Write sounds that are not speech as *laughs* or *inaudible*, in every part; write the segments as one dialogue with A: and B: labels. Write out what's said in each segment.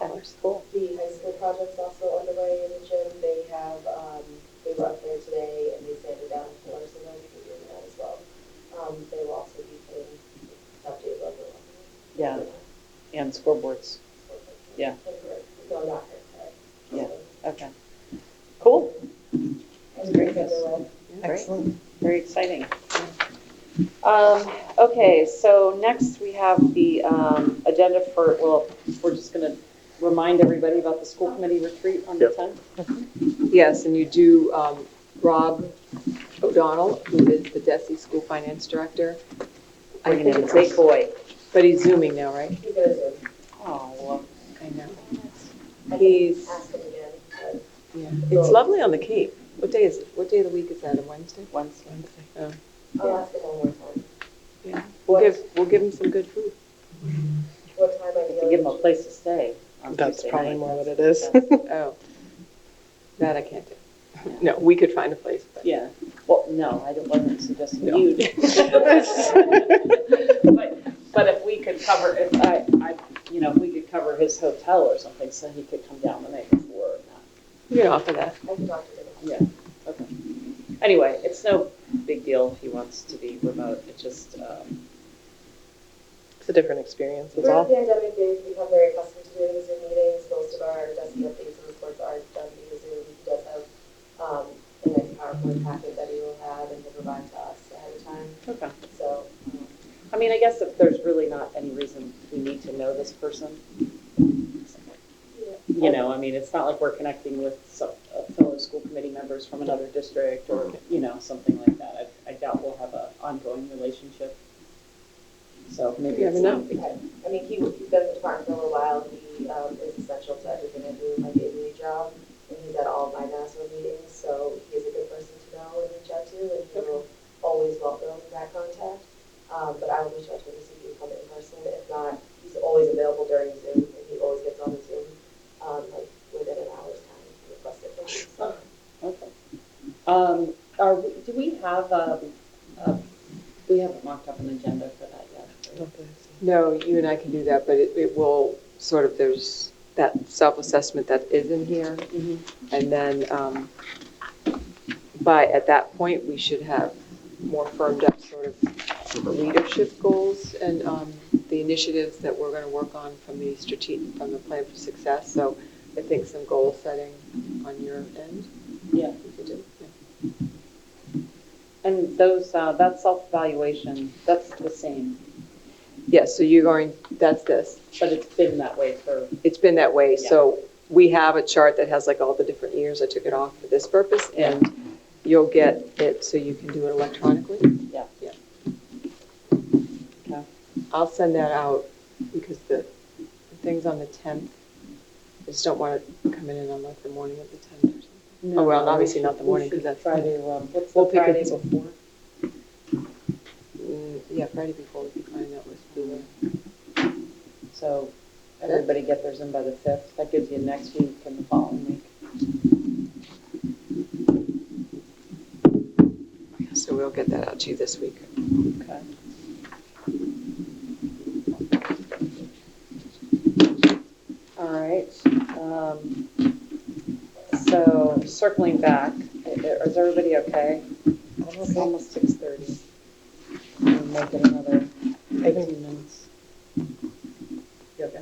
A: our school.
B: um, The high school project's also underway in the gym. They have, um, they were up there today and they sanded down floors and they'll be doing that as well. Um, they will also be putting updated level.
C: Yeah, and scoreboards, Yeah.
B: No, not her, sorry.
C: Yeah. okay. Cool,
B: That's great, Kendall.
C: great.
A: Excellent.
C: very exciting. Um, okay, so next we have the, um, agenda for, well, we're just gonna remind everybody about the school committee retreat on the
D: Yep.
C: tenth.
E: Yes, and you do, um, Rob O'Donnell, who is the DESI School Finance Director. I
C: Bringing
E: think
C: in
E: it's
C: big
E: April,
C: boy.
E: but he's zooming now, right?
B: He's gonna do.
C: Oh,
E: I know.
B: I can
E: He's,
B: ask him again. but-
E: it's lovely on the Cape. What day is, it? what day of the week is that, a Wednesday?
C: Wednesday.
E: Oh,
B: I'll ask him one more time.
E: yeah. We'll give, we'll give him some good food.
B: What time are you?
C: We have to give them a place to stay
A: *laughs*
C: on
A: That's
C: Tuesday
A: probably
C: night.
A: more what it is.
E: *laughs* Oh, that I can't do. No, *laughs* we could find a place,
A: *laughs*
E: but.
C: Yeah, well, no, I didn't- wasn't suggesting
E: No.
C: you. But, but if we could cover, if I, I, you know, if we could cover his hotel or something, so he could come down the night before or not.
E: We could offer that.
B: I can talk to him.
C: Yeah, okay. Anyway, it's no big deal if he wants to be remote, it just, um,
A: It's a different experience, that's
B: During
A: all.
B: the pandemic, they've become very accustomed to doing Zoom meetings. Most of our desk updates and reports are done via Zoom. He does have um, a nice PowerPoint packet that he will have and will provide to us ahead of time.
C: okay.
B: So um,
C: I mean, I guess if there's really not any reason we need to know this person. You know, I mean, it's not like we're connecting with some uh, fellow school committee members from another district or, you know, something like that. I I doubt we'll have a ongoing relationship. So maybe
E: You
C: it's
E: never
C: not. a big deal.
B: I mean, he, he's been in the department for a little while, he, um, is essential to everything I do in my day-to-day job, and he's at all of my NASWA meetings, so he's a good person to know and reach out to, and he will always welcome that contact. Um, but I will reach out to him to see if he can come in person, if not, he's always available during Zoom, and he always gets on the Zoom, um, like, within an hour's time, he requested from me, so.
C: Okay. Um, Are, we- do we have, um, uh, we haven't mocked up an agenda for that yet. right?
E: No, you and I can do that, but it, it will sort of, there's that self-assessment that is in here. And then, um, by, at that point, we should have more firmed up sort of leadership goals and, um, the initiatives that we're gonna work on from the strategic, from the plan for success. So I think some goal setting on your end.
C: Yeah.
E: we could do, yeah.
C: And those, uh, that self-evaluation, that's the same,
E: Yes, so you're going, that's this.
C: but it's been that way for
E: it's been that way. So we have a chart that has like all the different years. I took it off for this purpose and you'll get it so you can do it electronically.
C: Yeah.
E: Yeah.
C: Okay.
E: I'll send that out because the the thing's on the 10th. I just don't want it coming in on like the morning of the 10th or something.
C: No,
E: Oh, well,
C: no,
E: obviously
C: we
E: not the
C: should-
E: morning,
C: we
E: 'cause that's-
C: should Try to, um, what's
E: We'll
C: the
E: pick
C: Friday
E: it.
C: before?
E: Mm, Yeah, Friday before we could find out what's due.
C: So everybody get theirs in by the fifth. That gives you next week and the following week.
E: So we'll get that out to you this week.
C: Okay. All right. um, So circling back, i- i- is everybody okay? It's almost six thirty. Make it another eighteen minutes. You okay?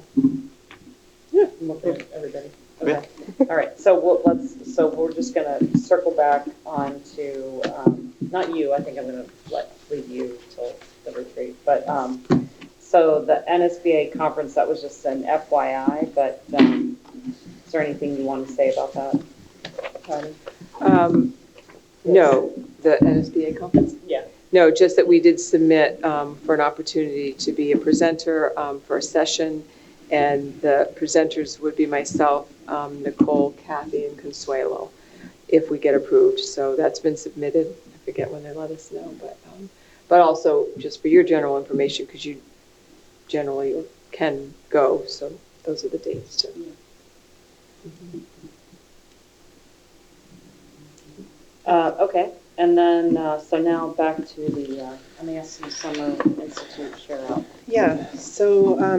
C: Yeah. I'm okay with everybody. Okay. All right, so we'll, let's, so we're just gonna circle back on to, um, not you, I think I'm gonna let, leave you till the retreat, but, um, so the NSBA conference, that was just an FYI, but, um, is there anything you want to say about that? Patty?
E: Um, No, the NSBA conference?
C: Yeah.
E: No, just that we did submit um, for an opportunity to be a presenter um, for a session, and the presenters would be myself, um, Nicole, Kathy, and Consuelo, if we get approved. So that's been submitted. I forget when they let us know, but, um, but also just for your general information, because you generally can go, so those are the dates too.
C: Uh, okay, and then, uh, so now back to the, uh, MASC Summer Institute share out.
A: Yeah, so, um,